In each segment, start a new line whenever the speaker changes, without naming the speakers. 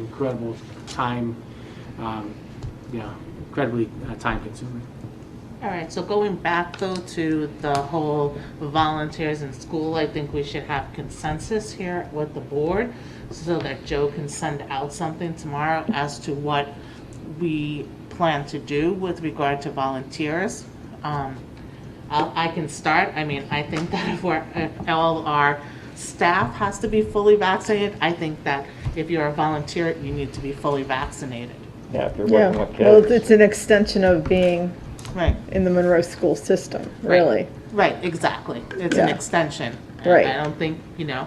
incredible time, um, you know, incredibly uh, time consuming.
All right, so going back though to the whole volunteers in school, I think we should have consensus here with the board so that Joe can send out something tomorrow as to what we plan to do with regard to volunteers. Um, I'll- I can start, I mean, I think that if we're, if all our staff has to be fully vaccinated, I think that if you're a volunteer, you need to be fully vaccinated.
Yeah, if you're
Yeah,
working with
well,
kids.
it's an extension of being
Right.
in the Monroe school system, really.
Right, exactly. It's an
Yeah.
extension. I-
Right.
I don't think, you know,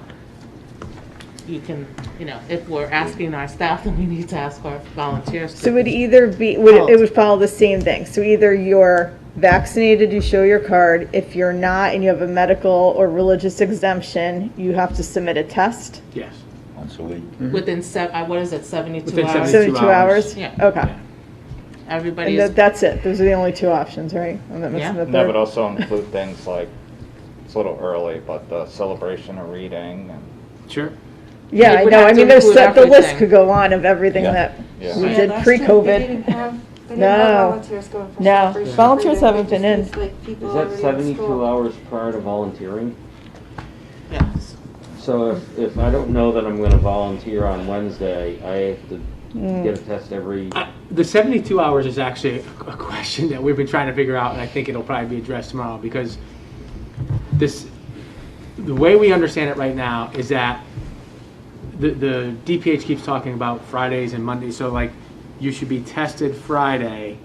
you can, you know, if we're asking our staff, then we need to ask our volunteers.
So it would either be, would, it- it would follow the same thing. So either you're vaccinated, you show your card. If you're not and you have a medical or religious exemption, you have to submit a test.
Yes.
Once a week.
Within se, uh, what is it, seventy-two
Within
hours?
72
Seventy-two hours?
Yeah.
Okay.
Everybody
And
is,
that- that's it. Those are the only two options, right? I'm not missing
Yeah.
the
No, but
third.
also include things like, it's a little early, but the celebration of reading and,
Sure.
Yeah,
It
I
would
know.
have
I
to
mean, there's,
include
set- the list
everything.
could go on of everything
Yeah.
that
Yeah. Yeah,
we did
last year They didn't
pre-COVID.
have, they didn't have
No.
volunteers going for
No.
celebration.
Yeah. Volunteers
They
haven't been in.
just used, like, people
Is that
already at
seventy-two
school.
hours prior to volunteering?
yes.
So if, if I don't know that I'm gonna volunteer on Wednesday, I have to
Mm.
get a test every,
I- The 72 hours is actually a a question that we've been trying to figure out, and I think it'll probably be addressed tomorrow because this, the way we understand it right now is that the, the DPH keeps talking about Fridays and Mondays, so like, you should be tested Friday,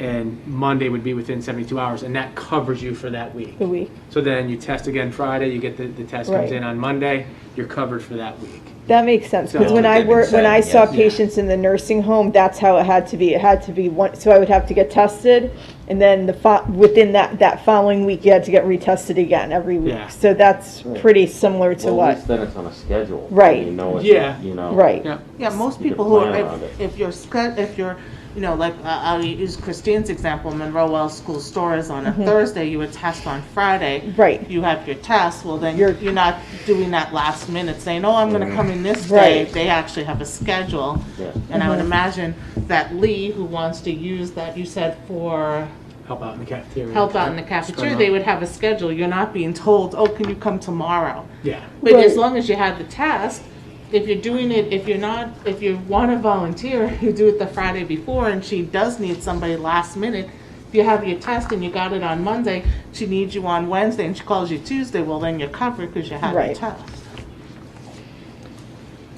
and Monday would be within 72 hours, and that covers you for that week.
The week.
So then you test again Friday, you get the, the test comes
Right.
in on Monday, you're covered for that week.
That makes sense, because
So-
when I
They've been
wor when I
saying,
saw
yes.
patients in the nursing home, that's how it had to be, it had to be one, so I would have to get tested, and then the fo- within that, that following week, you had to get retested again every
Yeah.
week, so that's pretty similar to
well, at
what,
least then it's on a schedule.
Right.
You know,
Yeah.
it's, you know.
right,
Yeah.
Yeah, most
You
people
could
who are,
plan around
if,
it.
if you're, sca- if you're, you know, like, uh, I'll use Christine's example, Monroe Wells School Store is on a Thursday, you would test on Friday.
Mm-hmm. Right.
You have your test, well, then you're,
You're-
you're not doing that last minute saying, oh, I'm gonna come in this day.
Right. Mm-hmm.
They actually have a schedule.
Mm-hmm. Yeah.
And I would imagine that Lee, who wants to use that, you said for
Help out in the cafeteria.
help out in the
Spread
cafeteria,
'em
they
out.
would have a schedule. You're not being told, oh, can you come tomorrow?
Yeah.
But as
Right.
long as you have the test, if you're doing it, if you're not, if you want to volunteer, you do it the Friday before, and she does need somebody last minute. If you have your test and you got it on Monday, she needs you on Wednesday, and she calls you Tuesday. Well, then you're covered because you had your
Right.
test.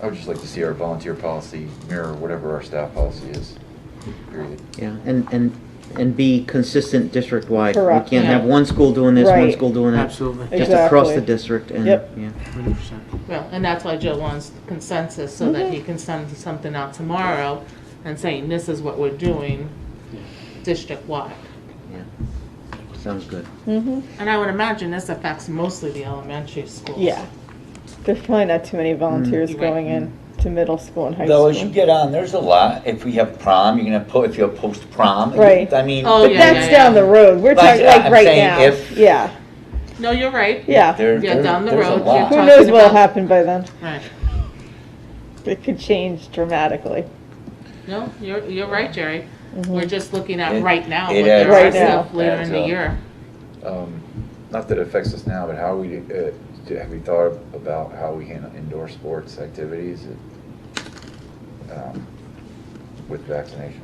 I would just like to see our volunteer policy mirror whatever our staff policy is, period.
Yeah, and, and, and be consistent district-wide.
Correct.
We can't have
Yeah.
one school doing this, one
Right.
school doing that.
Absolutely.
Just across the
Exactly.
district and,
Yep.
yeah.
100%.
Well, and that's why Joe wants consensus so that
Mm-hmm.
he can send something out tomorrow and saying this is what we're doing district wide.
Sounds good.
Mm-hmm.
And I would imagine this affects mostly the elementary schools.
yeah. There's probably not too many volunteers
You're right.
going in to middle school and high
Mm. Though, as you
school.
get on, there's a lot, if we have prom, you're gonna put, if you have post-prom,
Right.
I mean,
Oh,
But
yeah,
that's
yeah,
down
yeah.
the road, we're
Like,
talking, like,
I'm
right
saying
now,
if-
yeah,
No, you're right.
yeah.
there,
Yeah,
there-
down the
there's a
road,
lot.
yeah.
Who
talking
knows what'll
about-
happen by then,
Right.
it could change dramatically.
No, you're, you're right, Jerry.
Mm-hmm.
We're just looking at
It-
right now,
it
what there
adds
are
up.
stuff later
Adds
in the
up.
year.
Um, Not that it affects us now, but how we, uh, do- have you thought about how we handle indoor sports activities um, with vaccinations?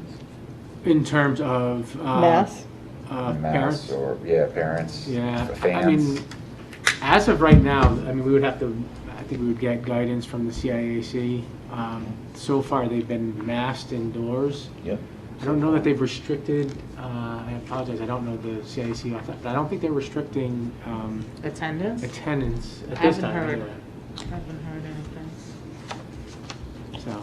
In terms of. uh,
Mass,
Uh,
Masks
parents.
or, yeah, parents,
Yeah. I
fans.
mean, as of right now, I mean, we would have to, I think we would get guidance from the CIAC. Um, So far, they've been masked indoors.
Yep.
I don't know that they've restricted, uh, I apologize, I don't know the CIAC off that, but I don't think they're restricting um,
Attendance?
attendance at this
Haven't
time.
heard.
anyway.
Haven't heard anything.
So.
But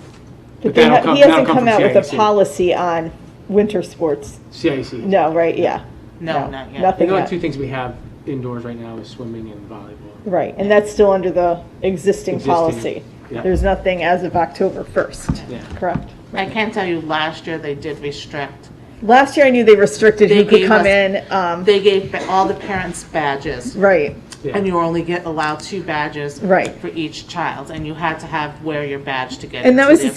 But
they
that'll
ha-
come-
he
that'll
hasn't
come
come
from
out with a
CIAC.
policy on winter sports.
CIAC.
No, right, yeah.
No, not yet.
The
Nothing
only
yet.
two things we have indoors right now is swimming and volleyball.
Right, and that's still under the existing
Existing,
policy.
yeah.
There's nothing as of October 1st,
Yeah.
correct?
I can tell you, last year they did restrict.
Last year, I knew they restricted
They
who could
gave
come
us-
in, um,
They gave ba- all the parents badges,
right,
Yeah.
and you were only get allowed two badges
right.
for each child, and you had to have, wear your badge to get
And that
into
was
the
the